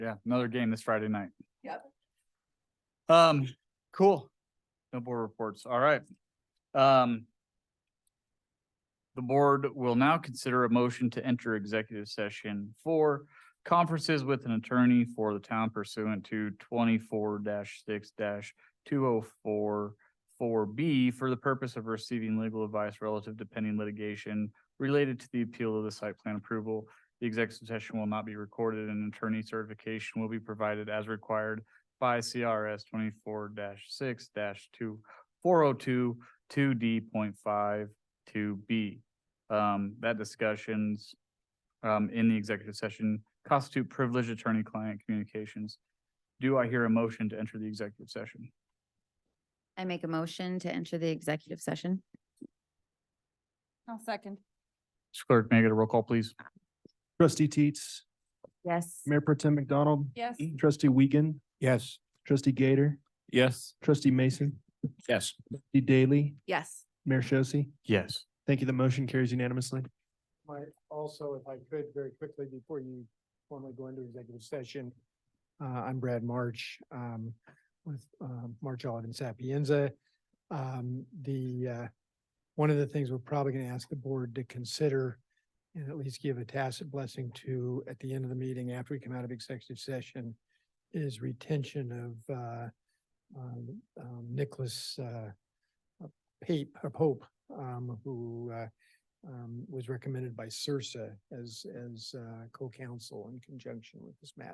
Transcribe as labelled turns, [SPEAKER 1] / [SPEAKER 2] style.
[SPEAKER 1] Yeah, another game this Friday night.
[SPEAKER 2] Yep.
[SPEAKER 1] Um, cool. No board reports. All right. Um. The board will now consider a motion to enter executive session for conferences with an attorney for the town pursuant to twenty-four six two oh four four B for the purpose of receiving legal advice relative to pending litigation related to the appeal of the site plan approval the executive session will not be recorded and attorney certification will be provided as required by CRS twenty-four six two four oh two two D point five two B. Um, that discussions um, in the executive session constitute privileged attorney-client communications. Do I hear a motion to enter the executive session?
[SPEAKER 3] I make a motion to enter the executive session.
[SPEAKER 2] I'll second.
[SPEAKER 1] Clerk, may I get a roll call, please?
[SPEAKER 4] Trustee Teets,
[SPEAKER 3] Yes.
[SPEAKER 4] Mayor Pro Tem McDonald,
[SPEAKER 2] Yes.
[SPEAKER 4] Trustee Wiegand. Yes. Trustee Gator,
[SPEAKER 1] Yes.
[SPEAKER 4] Trustee Mason,
[SPEAKER 1] Yes.
[SPEAKER 4] Trustee Daly,
[SPEAKER 3] Yes.
[SPEAKER 4] Mayor Shosse.
[SPEAKER 1] Yes.
[SPEAKER 4] Thank you. The motion carries unanimously.
[SPEAKER 5] might also, if I could, very quickly before you formally go into executive session. Uh, I'm Brad March, um, with, um, March Olive and Sapienza. Um, the, uh, one of the things we're probably gonna ask the board to consider and at least give a tacit blessing to at the end of the meeting after we come out of executive session is retention of, uh, um, um, Nicholas, uh, Pape, or Pope, um, who, uh, um, was recommended by Sursa as, as, uh, co-counsel in conjunction with this matter.